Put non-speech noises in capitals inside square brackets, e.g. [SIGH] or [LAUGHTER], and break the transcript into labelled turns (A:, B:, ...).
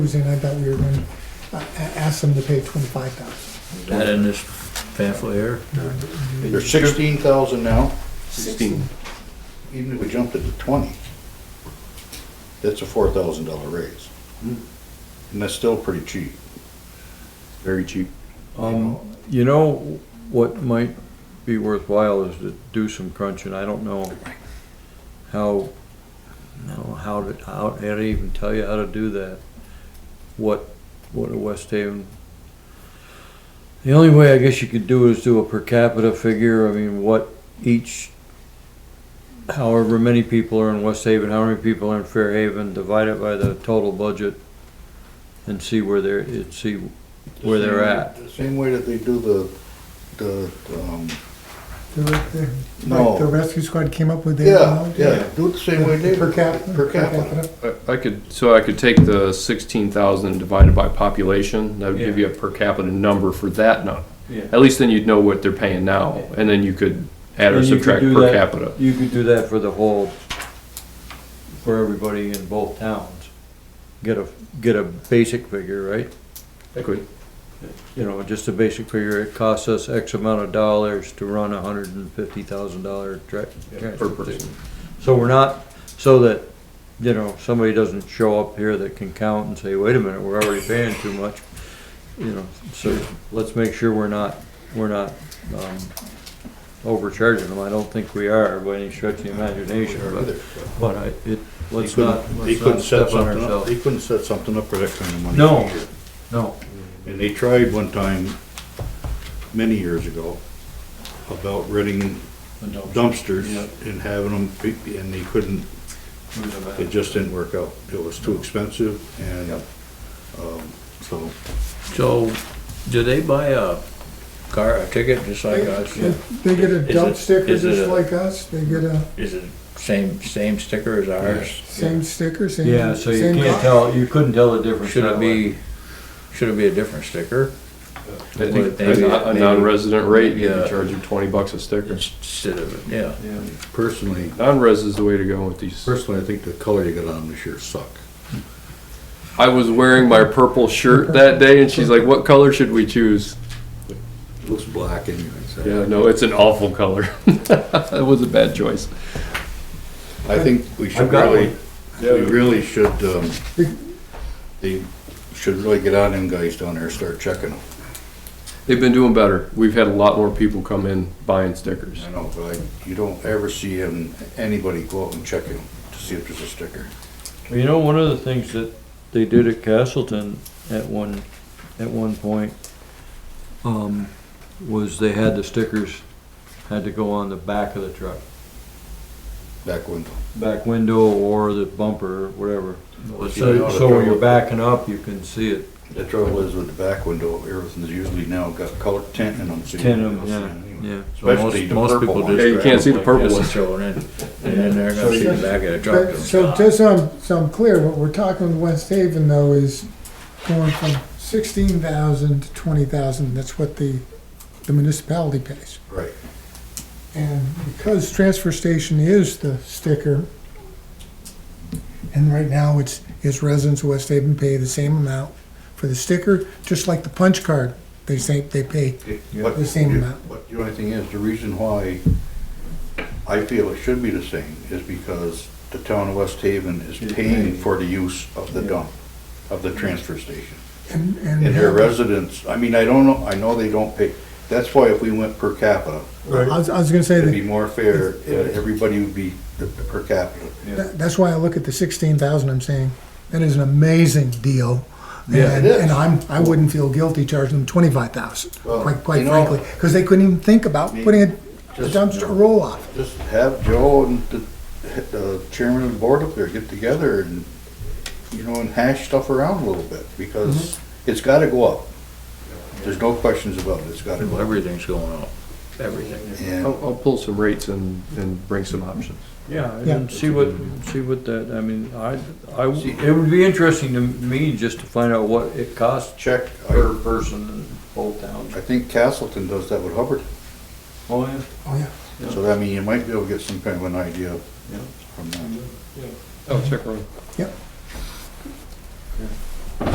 A: Tuesday night that we were going to ask them to pay twenty-five thousand.
B: That in this pamphlet here.
C: There's sixteen thousand now,
D: Sixteen.
C: even if we jumped it to twenty, that's a four thousand dollar raise.
D: Hmm.
C: And that's still pretty cheap.
D: Very cheap.
E: Um, you know, what might be worthwhile is to do some crunching, I don't know how, I don't know how to, how, how to even tell you how to do that. What, what a West Haven. The only way I guess you could do is do a per capita figure, I mean, what each, however many people are in West Haven, how many people are in Fairhaven, divide it by the total budget and see where they're, it, see where they're at.
C: The Same way that they do the, the, um,
A: The, the,
C: No.
A: like the rescue squad came up with their
C: yeah,
A: amount?
C: yeah, do it the same way they. do.
A: Per capita?
C: Per capita.
D: I could, so I could take the sixteen thousand divided by population, that would give you a per capita number for that number.
E: Yeah.
D: At least then you'd know what they're paying now, and then you could add or
E: And you could
D: subtract
E: do
D: per
E: that-
D: capita.
E: You could do that for the whole, for everybody in both towns. Get a, get a basic figure, right?
D: I could,
E: You know, just a basic figure, it costs us X amount of dollars to run a hundred and fifty thousand dollar tra-
D: per
E: transfer
D: person.
E: station. So we're not, so that, you know, somebody doesn't show up here that can count and say, wait a minute, we're already paying too much. You know, so let's make sure we're not, we're not, um, overcharging them. I don't think we are by any stretch of the imagination, but, but I, it,
C: They
E: let's not,
C: couldn't, they
E: let's not
C: couldn't set
E: step on
C: something up,
E: ourselves.
C: they couldn't set something up for that kind of money.
E: No. No,
C: And they tried one time, many years ago, about renting dumpsters and having them, be- and they couldn't It just didn't work out. It was too expensive and, um, so,
B: So, do they buy a car, a ticket just like us?
A: They- They get a
B: Is it-
A: dump sticker
B: is it
A: just
B: a-
A: like us, they get a
B: Is it same, same sticker as ours?
A: same sticker, same.
E: yeah, so you
A: same
E: can't
A: co-
E: tell, you couldn't tell the difference.
B: Should
E: that
B: it
E: way.
B: be, should it be a different sticker?
D: I think
B: Maybe-
D: a non- a
B: maybe-
D: non-resident rate, you
B: maybe,
D: could
B: uh,
D: charge them twenty bucks a sticker.
B: Instead of, yeah.
E: Yeah.
C: personally,
D: Non-res is the way to go with these.
C: personally, I think the color you got on this year suck.
D: I was wearing my purple shirt that day, and she's like, what color should we choose?
C: It Looks black anyway,
D: Yeah,
C: so.
D: no, it's an awful color. [LAUGHS] That was a bad choice.
C: I think we should
E: I've got
C: really, we
D: Yeah.
C: really should, um, they should really get on them guys down there and start checking them.
D: They've been doing better. We've had a lot more people come in buying stickers.
C: I know, but I- you don't ever see 'em- anybody go out and check them to see if there's a sticker.
E: Well, you know, one of the things that they did at Castleton at one, at one point, um, was they had the stickers, had to go on the back of the truck,
C: Back window.
E: back window or the bumper, or whatever.
B: Was
E: So, so when you're backing up, you can see it.
C: The trouble is with the back window, everything's usually now got color tint in them. so you
E: Tint
C: don't
E: 'em,
C: see
E: yeah,
C: it anyway.
E: yeah.
B: So most-
C: Especially the
B: most
C: purple
B: people
C: ones.
B: just
D: Yeah, you
B: grab
D: can't see
B: them
D: the
B: like
D: purple
B: this
D: one.
B: and throw it in, and then they're gonna see the back of the truck.
A: But-
B: and
A: So
B: stop.
A: just so I'm, so I'm clear, what we're talking West Haven though is going from sixteen thousand to twenty thousand, that's what the, the municipality pays.
C: Right.
A: And because transfer station is the sticker, and right now it's, it's residents of West Haven pay the same amount for the sticker, just like the punch card, they say, they pay.
C: But
A: The same
C: you-
A: amount.
C: But the only thing is, the reason why I feel it should be the same is because the town of West Haven is paying for the use of the dump, of the transfer station.
A: And,
C: And their
A: and
C: residents, I mean, I don't know, I know they don't pay, that's why if we went per capita,
A: I was, I was gonna say
C: it'd be
A: that,
C: more fair, and everybody would be the- the per capita.
A: that- that's why I look at the sixteen thousand, I'm saying, that is an amazing deal.
C: Yeah,
A: And,
C: it is.
A: and I'm, I wouldn't feel guilty charging them twenty-five thousand,
C: Well,
A: quite, quite
C: you know-
A: frankly, because they couldn't even think about putting a a
C: Just-
A: dumpster roll off.
C: Just have Joe and the, the chairman of the board up there get together and, you know, and hash stuff around a little bit, because it's gotta go up. There's no questions about it, it's gotta go up.
B: Everything's going up, everything.
C: And
D: I'll, I'll pull some rates and, and bring some options.
E: Yeah,
A: Yeah.
E: and see what, see what that, I mean, I, I, it would be interesting to me just to find out what it costs
C: check,
E: per
C: I,
E: person in both towns.
C: I think Castleton does that with Hubbard,
E: Oh, yeah.
A: Oh, yeah.
C: so I mean, you might be able to get some kind of an idea
E: Yeah.
C: from that.
D: Oh, check around.
A: Yep.